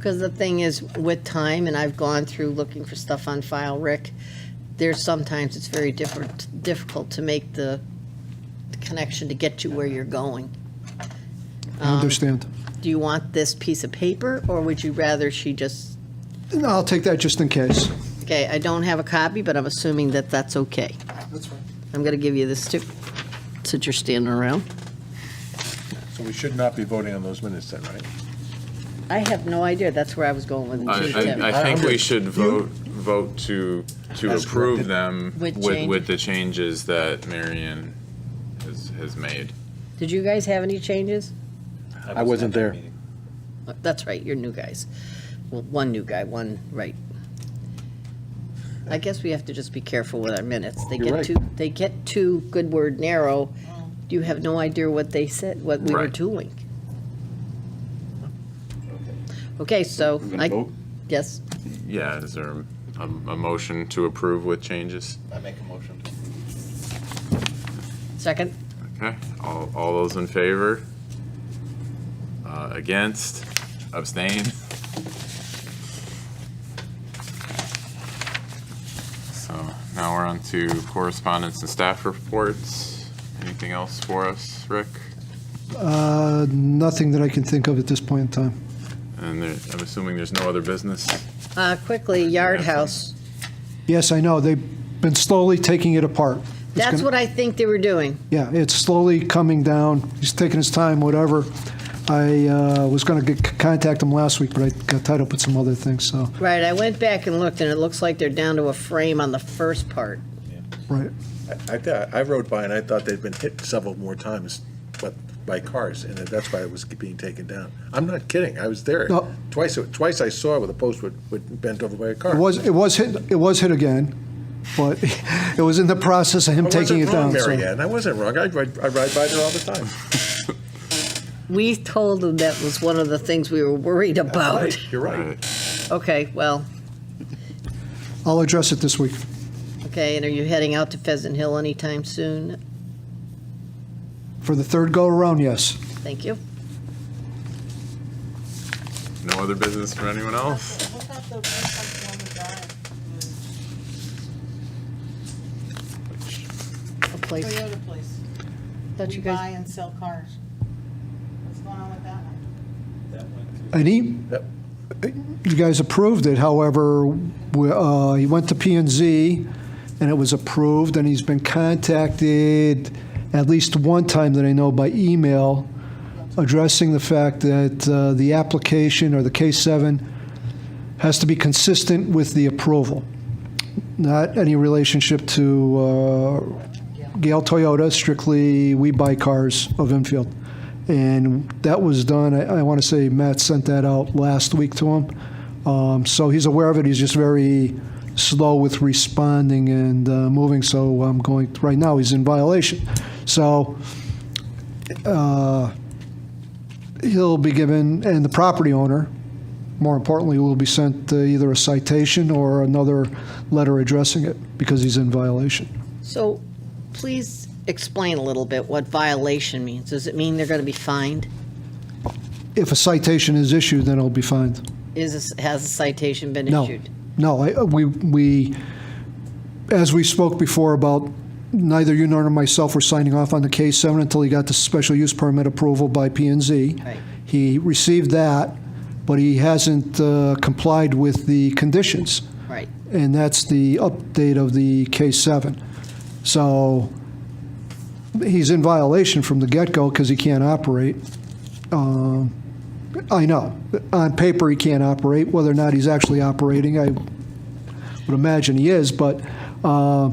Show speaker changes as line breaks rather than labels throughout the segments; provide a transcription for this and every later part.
Because the thing is, with time, and I've gone through looking for stuff on file, Rick, there's sometimes it's very different, difficult to make the the connection to get you where you're going. Um,
I understand.
Do you want this piece of paper, or would you rather she just,
No, I'll take that just in case.
okay, I don't have a copy, but I'm assuming that that's okay.
That's fine.
I'm going to give you this too, since you're standing around.
So we should not be voting on those minutes then, right?
I have no idea, that's where I was going with it, too,
I-
Tim.
I, I think we should vote, vote to, to
As
approve
corrected.
them
With
with,
change.
with the changes that Marion has, has made.
Did you guys have any changes?
I wasn't there.
That's right, you're new guys. Well, one new guy, one, right. I guess we have to just be careful with our minutes. They
You're
get
right.
too, they get too good word narrow. You have no idea what they said, what we were
Right.
doing. Okay, so
We're gonna
I,
vote?
yes,
Yeah, is there a, a motion to approve with changes?
I make a motion.
second,
Okay, all, all those in favor? Uh, against, abstain? So now we're on to correspondence and staff reports. Anything else for us, Rick?
Uh, Nothing that I can think of at this point in time.
And there, I'm assuming there's no other business?
uh, quickly, Yard House.
Yes, I know, they've been slowly taking it apart. It's
That's
gonna-
what I think they were doing.
Yeah, it's slowly coming down. He's taking his time, whatever. I uh, was going to contact him last week, but I got tied up with some other things, so,
Right, I went back and looked, and it looks like they're down to a frame on the first part.
right.
I thought, I rode by and I thought they'd been hit several more times, but by cars, and that's why it was being taken down. I'm not kidding, I was there.
No.
Twice, twice I saw it with a post would, would bent over by a car.
It was, it was hit, it was hit again, but it was in the process of him taking it down.
I wasn't
so-
wrong, Mary Ann, I wasn't wrong. I ride, I ride by there all the time.
We told them that was one of the things we were worried about.
Right, You're right.
Okay, well,
I'll address it this week.
okay, and are you heading out to Pheasant Hill anytime soon?
For the third go-around, yes.
Thank you.
No other business from anyone else?
Look at the website on the drive,
A place,
Toyota place.
thought
We
you guys-
buy and sell cars. What's going on with that one?
And he,
Yep.
you guys approved it, however, we- uh, he went to P and Z, and it was approved, and he's been contacted at least one time that I know by email, addressing the fact that uh, the application or the K-7 has to be consistent with the approval, not any relationship to uh, Gale Toyota, strictly we buy cars of Enfield. And that was done, I, I want to say Matt sent that out last week to him. Um, so he's aware of it, he's just very slow with responding and uh, moving, so I'm going, right now, he's in violation. So, uh, he'll be given, and the property owner, more importantly, will be sent uh, either a citation or another letter addressing it, because he's in violation.
so please explain a little bit what violation means. Does it mean they're going to be fined?
If a citation is issued, then it'll be fined.
Is, this- has a citation been
No.
issued?
No, I- uh, we, we, as we spoke before about, neither you nor myself were signing off on the K-7 until he got the special use permit approval by P and Z.
Right.
He received that, but he hasn't uh, complied with the conditions.
Right,
and that's the update of the K7. So he's in violation from the get-go because he can't operate. Um, I know, on paper, he can't operate, whether or not he's actually operating, I would imagine he is, but, um,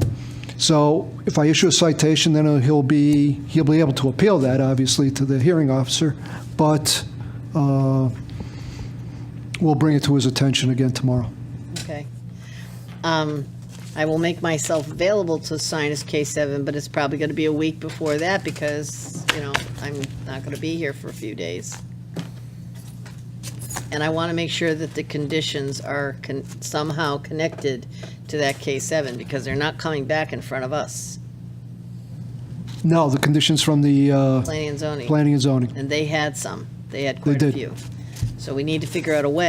so if I issue a citation, then he'll be, he'll be able to appeal that, obviously, to the hearing officer, but uh, we'll bring it to his attention again tomorrow.
okay. Um, I will make myself available to sign his K-7, but it's probably going to be a week before that because, you know, I'm not going to be here for a few days. And I want to make sure that the conditions are con- somehow connected to that K-7 because they're not coming back in front of us,
No, the conditions from the uh,
planning and zoning.
planning and zoning.
And they had some. They had quite a
did.
few. So we need to figure out a way